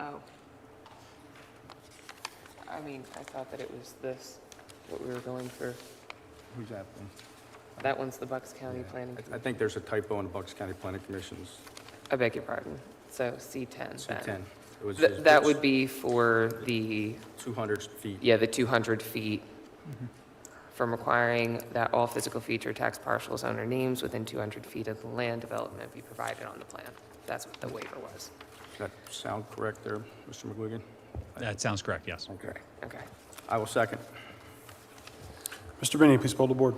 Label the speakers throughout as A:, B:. A: Oh. I mean, I thought that it was this, what we were going through.
B: Who's that one?
A: That one's the Bucks County Planning.
B: I- I think there's a typo in the Bucks County Planning Commission's
A: I beg your pardon. So C10
B: C10.
A: then.
B: It was
A: Th- That would be for the,
B: 200 feet.
A: yeah, the 200 feet
B: Mm-hmm.
A: from requiring that all physical feature tax parcels owner names within 200 feet of the land development be provided on the plan. That's what the waiver was.
B: Does that sound correct there, Mr. McGuigan?
C: That sounds correct, yes.
B: Okay.
A: Okay.
B: I will second.
D: Mr. Benny, please poll the board.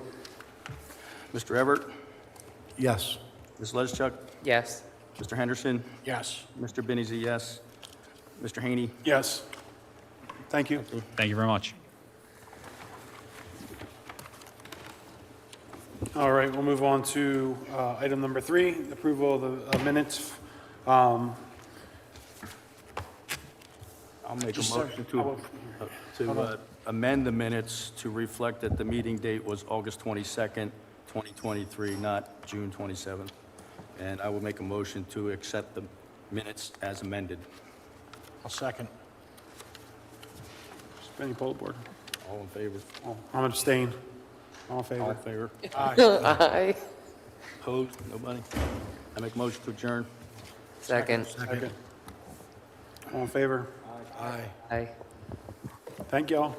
B: Mr. Everett,
D: Yes.
B: Ms. Leschuk,
A: Yes.
B: Mr. Henderson,
D: Yes.
B: Mr. Benny's a yes. Mr. Haney,
D: Yes. Thank you.
C: Thank you very much.
D: All right, we'll move on to uh, item number three, approval of the uh, minutes. Um,
B: I'll make a
D: Just a
B: motion
D: sec. I
B: to,
D: will-
B: to uh, amend the minutes to reflect that the meeting date was August 22nd, 2023, not June 27th. And I will make a motion to accept the minutes as amended.
E: I'll second.
D: Mr. Benny, poll the board.
B: All in favor?
D: Oh, I'm abstained. All in
B: All in
D: favor?
B: favor?
A: Aye.
B: Opposed? Nobody? I make a motion to adjourn.
A: Second.
D: Second. All in favor?
E: Aye.
A: Aye.
D: Thank y'all.